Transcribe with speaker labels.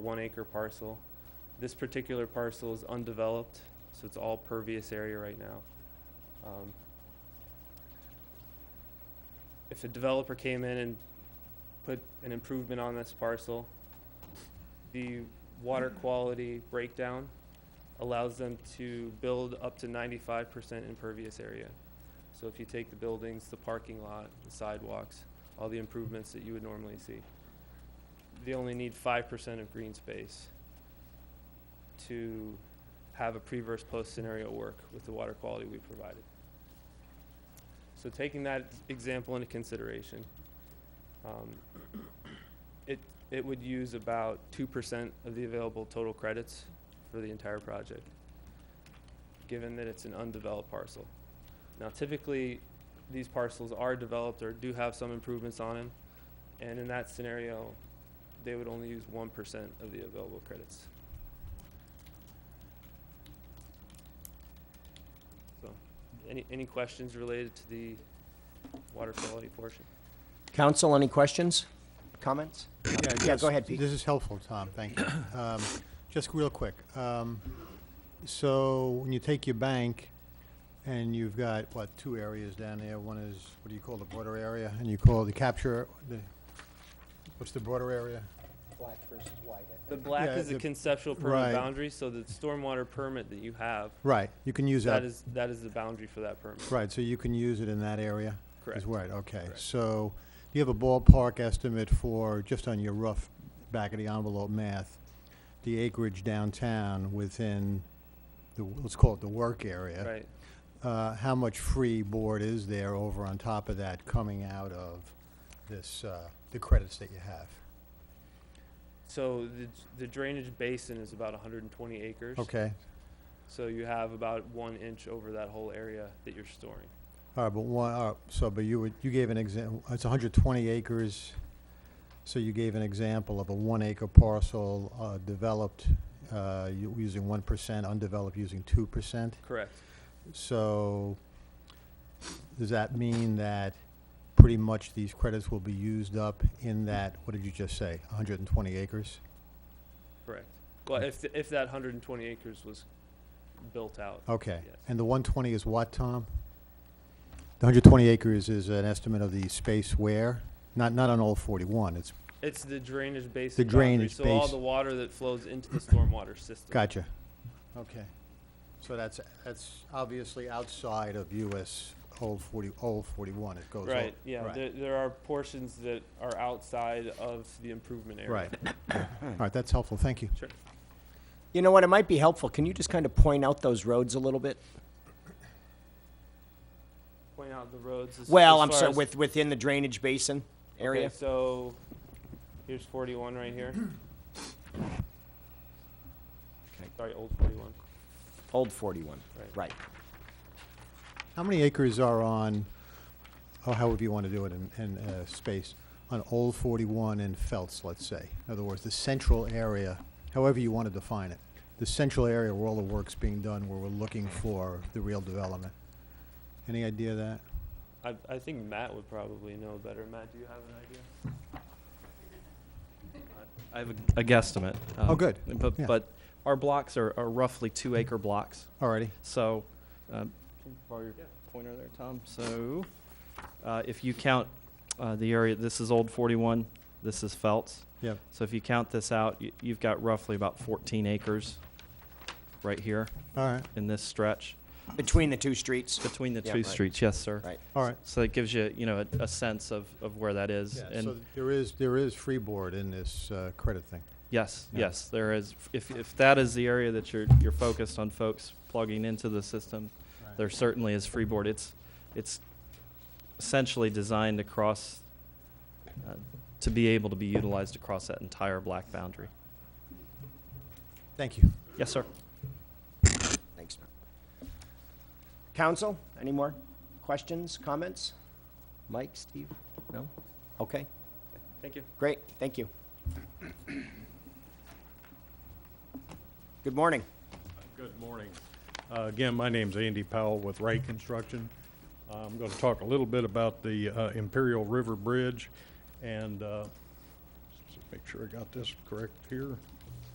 Speaker 1: one acre parcel. This particular parcel is undeveloped, so it's all pervious area right now. Um, If a developer came in and put an improvement on this parcel, the water quality breakdown allows them to build up to ninety-five percent impervious area. So if you take the buildings, the parking lot, the sidewalks, all the improvements that you would normally see, they only need five percent of green space to have a pre-verse post scenario work with the water quality we provided. So taking that example into consideration, um, it, it would use about two percent of the available total credits for the entire project, given that it's an undeveloped parcel. Now typically, these parcels are developed or do have some improvements on them, and in that scenario, they would only use one percent of the available credits. So, any, any questions related to the water quality portion?
Speaker 2: Council, any questions, comments? Yeah,
Speaker 3: yes.
Speaker 2: go ahead, Pete.
Speaker 3: This is helpful, Tom, thank you. Um, Just real quick, um, so when you take your bank and you've got, what, two areas down there? One is, what do you call the border area? And you call the capture, the, what's the border area?
Speaker 2: Black versus white, I
Speaker 1: The black
Speaker 3: Yeah,
Speaker 1: is the
Speaker 3: the-
Speaker 1: conceptual permit
Speaker 3: right.
Speaker 1: boundary, so the stormwater permit that you have,
Speaker 3: Right, you can use
Speaker 1: that
Speaker 3: that,
Speaker 1: is, that is the boundary for that permit.
Speaker 3: right, so you can use it in that area?
Speaker 1: Correct.
Speaker 3: Is right, okay.
Speaker 1: Correct.
Speaker 3: So do you have a ballpark estimate for, just on your rough back of the envelope math, the acreage downtown within the, let's call it the work area?
Speaker 1: Right,
Speaker 3: uh, how much free board is there over on top of that coming out of this, uh, the credits that you have?
Speaker 1: so the, the drainage basin is about hundred and twenty acres.
Speaker 3: Okay,
Speaker 1: So you have about one inch over that whole area that you're storing.
Speaker 3: all right, but one, all right, so, but you would, you gave an example, it's hundred twenty acres, so you gave an example of a one acre parcel, uh, developed, uh, u- using one percent, undeveloped using two percent.
Speaker 1: Correct.
Speaker 3: So, does that mean that pretty much these credits will be used up in that, what did you just say, hundred and twenty acres?
Speaker 1: Correct. Well, if, th- if that hundred and twenty acres was built out,
Speaker 3: Okay,
Speaker 1: Yes.
Speaker 3: and the one twenty is what, Tom? The hundred twenty acres is an estimate of the space where, not, not on all forty-one, it's,
Speaker 1: it's the drainage basin. boundary,
Speaker 3: drainage
Speaker 1: So all
Speaker 3: base-
Speaker 1: the water that flows into the stormwater system.
Speaker 3: gotcha. Okay, so that's, that's obviously outside of US old forty, old forty-one, it goes. o-
Speaker 1: Right, yeah,
Speaker 3: right.
Speaker 1: there, there are portions that are outside of the improvement area.
Speaker 3: Right, all right, that's helpful, thank you.
Speaker 1: Sure.
Speaker 2: You know what, it might be helpful, can you just kind of point out those roads a little bit?
Speaker 1: Point out the roads. as-
Speaker 2: Well,
Speaker 1: as
Speaker 2: I'm
Speaker 1: far
Speaker 2: sorry,
Speaker 1: as-
Speaker 2: with, within the drainage basin
Speaker 1: Okay,
Speaker 2: area?
Speaker 1: so here's 41 right here.
Speaker 2: Okay.
Speaker 1: Sorry, old 41.
Speaker 2: Old 41,
Speaker 1: Right.
Speaker 2: right.
Speaker 3: How many acres are on, or however you want to do it in, in, uh, space, on old forty-one and Feltz, let's say? In other words, the central area, however you want to define it, the central area where all the work's being done, where we're looking for the real development. Any idea of that?
Speaker 1: I, I think Matt would probably know better. Matt, do you have an idea?
Speaker 4: I have a, a guesstimate. um,
Speaker 3: Oh, good.
Speaker 4: But,
Speaker 3: Yeah.
Speaker 4: but our blocks are, are roughly two acre blocks.
Speaker 3: Alrighty,
Speaker 4: So, um, can you borrow your
Speaker 1: Yeah.
Speaker 4: pointer there, Tom? So, uh, if you count uh, the area, this is Old 41, this is Feltz.
Speaker 3: Yep.
Speaker 4: So, if you count this out, you, you've got roughly about 14 acres right here
Speaker 3: alright,
Speaker 4: in this stretch
Speaker 2: Between the two streets?
Speaker 4: between the
Speaker 2: Yeah,
Speaker 4: two
Speaker 2: right.
Speaker 4: streets. Yes, sir.
Speaker 2: Right.
Speaker 3: alright.
Speaker 4: So, that gives you, you know, a, a sense of, of where that is. and
Speaker 3: So there is, there is freeboard in this, uh, credit thing.
Speaker 4: Yes,
Speaker 3: Yeah.
Speaker 4: yes, there is. If, if that is the area that you're, you're focused on folks plugging into the system, there certainly is freeboard. It's, it's essentially designed across, uh, to be able to be utilized across that entire black boundary.
Speaker 3: Thank you.
Speaker 4: Yes, sir.
Speaker 2: Thanks. Council, any more questions, comments? Mike, Steve? No? Okay,
Speaker 1: Thank you.
Speaker 2: great, thank you. Good morning.
Speaker 5: Good morning. Uh, Again, my name's Andy Powell with Ray Construction. Uh, I'm going to talk a little bit about the uh, Imperial River Bridge and uh, just make sure I got this correct here.